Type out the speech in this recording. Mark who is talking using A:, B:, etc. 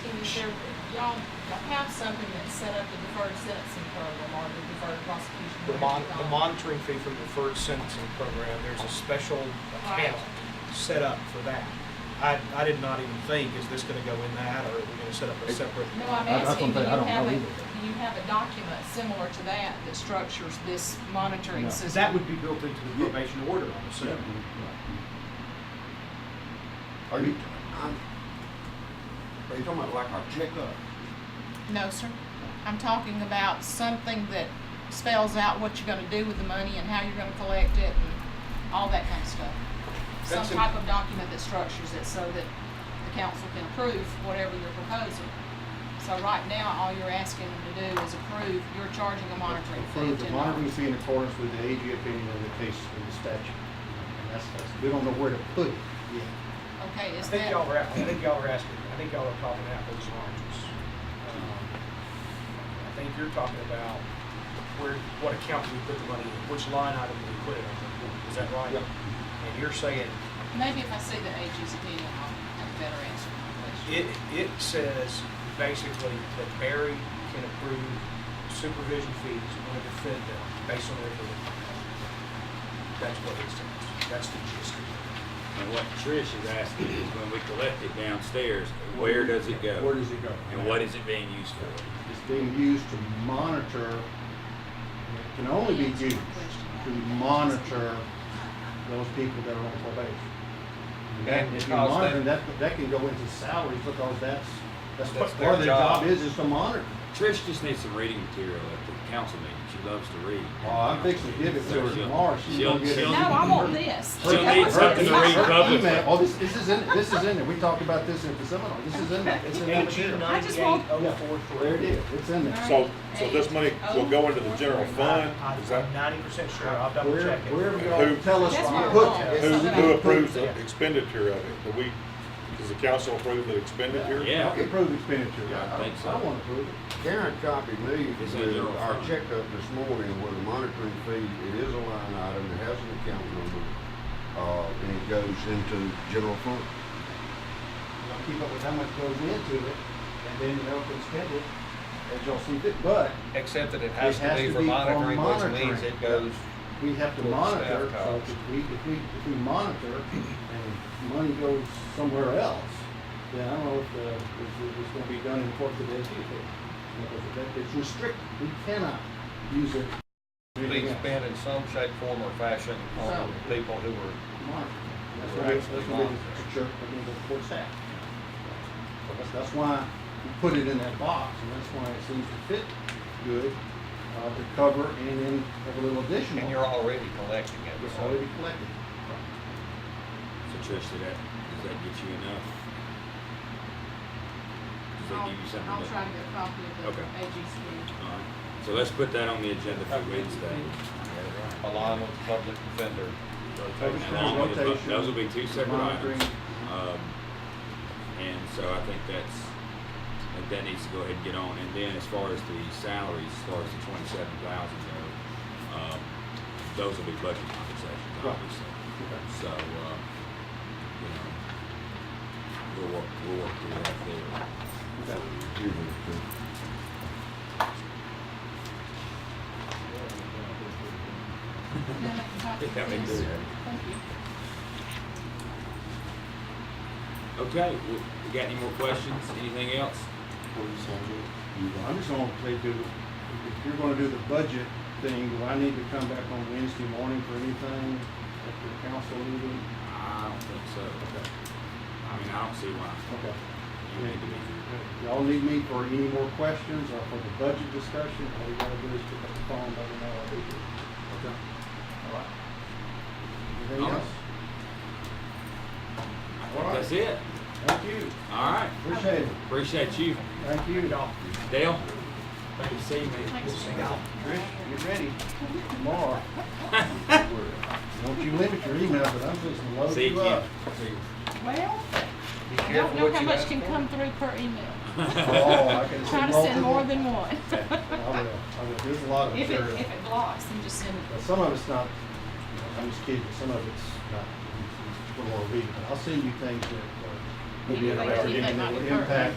A: there, y'all have something that's set up, the deferred sentencing program or the deferred prosecution.
B: The mon, the
A: program.
B: monitoring fee for the deferred sentencing program, there's a special account set up for that. I, I did not even think, is this gonna go in that, or are we gonna set up a separate?
A: No, I'm
C: I- that's
A: asking, do
C: one
A: you
C: thing I don't
A: have a,
C: know
A: do you have a document similar to that that structures this monitoring
C: No.
A: system?
B: That would be built into the probation order, I'm assuming.
C: Are you,
D: I'm, are you talking about like a checkup?
A: No, sir. I'm talking about something that spells out what you're gonna do with the money and how you're gonna collect it and all that kind of stuff. Some
B: That's a-
A: type of document that structures it so that the council can approve whatever you're proposing. So right now, all you're asking them to do is approve, you're charging a monitoring fee of
C: approve the
A: ten
C: monitoring
A: dollars.
C: fee in accordance with the AG opinion of the case of the statute. And that's, that's, we don't know where to put it yet.
A: Okay,
B: I
A: is
B: think
A: that,
B: y'all were, I think y'all were asking, I think y'all are talking apples and oranges. Um, I think you're talking about where, what account we put the money in, which line item we put it on, is that right? And you're saying,
A: maybe if I see the AG's opinion, I'll have a better answer to my question.
B: it, it says basically that Barry can approve supervision fees on a defendant based on their belief. That's what it says, that's the gist of it.
E: And what Trish is asking is when we collect it downstairs, where does it go?
D: Where does it go?
E: And what is it being used for?
C: It's being used to monitor, and it can only be used to monitor those people that are on probation. And that- if you
F: Because
C: monitor,
F: they-
C: that, that can go into salaries because that's, that's what
F: That's their
C: part of their job
F: job.
C: is, is to monitor.
E: Trish just needs some reading material at the council meeting. She loves to read.
C: Oh, I'm fixing to give it to her
E: So she'll-
C: tomorrow. She's
E: she'll-
C: gonna get it.
A: No,
E: she'll-
A: I want this.
E: She'll
A: That
E: need
A: was
E: something
A: it.
E: to read publicly.
C: Email- Oh, this, this is in, this is in there. We talked about this at the seminar. This is in there. It's in that
B: AG
C: material.
A: I just want-
B: ninety-eight oh four
C: There it is. It's in there.
G: So, so this money will go into the general fund, is that,
B: I'm ninety percent sure, I'll double
C: Where,
B: check it.
C: where we all tell us
A: That's
C: to
A: what I
C: put
A: want.
C: it.
G: who,
A: It's not
G: who
A: gonna-
G: approves the expenditure of it? Do we, does the council approve the expenditure?
E: Yeah.
C: I can approve expenditure.
E: Yeah, I think so.
C: I wanna approve it.
D: Karen copied me
E: It's
D: with
E: in your
D: our
E: fund.
D: checkup this morning with the monitoring fee. It is a line item, it has an account number, uh, and it goes into general fund.
C: I'll keep up with how much goes into it, and then you know, can spend it, as y'all see fit, but
F: Except that it has
C: It
F: to be for monitoring, which means
C: monitoring.
F: it goes,
C: we have to
F: Well,
C: monitor,
F: staff
C: so
F: costs.
C: if we, if we, if we monitor and money goes somewhere else, then I don't know if, uh, if it's gonna be done in accordance with the AG Because that, it's restricted, we cannot use it. for anything
F: being
C: else.
F: spent in some shape, form, or fashion on
C: So-
F: people who were,
C: Monitoring. That's what,
F: We're
C: we-
F: actually
C: that's what we,
F: monitoring.
C: the church, I mean, the court staff. So That's, that's why we put it in that box, and that's why it seems to fit good, uh, to cover and then have a little additional.
F: and you're already collecting it,
C: It's
F: so.
C: already collected.
E: So Trish, did that, does that get you enough? Does that
A: I'll,
E: give you something?
A: I'll
E: to-
A: try to get a copy of the
E: Okay.
A: AG's opinion.
E: All right. So let's put that on the agenda for Wednesday.
F: Along with the public defender. uh,
E: Along with the-
C: Rotation,
E: Those will be two separate
C: monitoring.
E: items. Um, And so I think that's, I think that needs to go ahead and get on. And then as far as the salaries, as far as the twenty-seven thousand go, um, those will be budget conversations,
C: Right.
E: obviously.
C: Okay.
E: So, uh, you know, we'll work, we'll work through that there.
A: Then I can copy
E: Yeah, they do
A: this.
E: that.
A: Thank you.
E: Okay, well, you got any more questions? Anything else?
C: I'm just gonna say, do, if you're gonna do the budget thing, do I need to come back on Wednesday morning for anything at the council meeting?
E: I don't think so. I mean, I don't see why
C: Okay.
E: you need to be here.
C: Y'all need me for any more questions or for the budget discussion, all you gotta do is pick up the phone, let me know I'll be here. Okay. All right. Anything
E: All right.
C: else?
E: I
C: All
E: think
C: right.
E: that's it.
C: Thank you,
E: All right.
C: appreciate it,
E: Appreciate you.
C: thank you. Y'all.
E: Dale, thank you, see you, man.
A: Thanks.
C: Rich, get ready tomorrow. Don't you limit your email, but I'm just gonna load
E: See you,
C: you
E: Ken.
C: up.
A: Well, I
F: Be careful
A: don't know
F: what
A: how
F: you
A: much
F: ask
A: can
F: for.
A: come through per email.
C: Oh, I can
A: Try to send more than one.
C: I will, I will, there's a lot of
A: If it,
C: material.
A: if it blocks, then just send
C: But
A: it.
C: Some of it's not, I'm just kidding, some of it's not, it's a little more reading, but I'll send you things that, uh, maybe
A: Anyway,
C: are
A: you think
C: giving
A: might
C: that
A: be
C: will
A: pertinent.
C: impact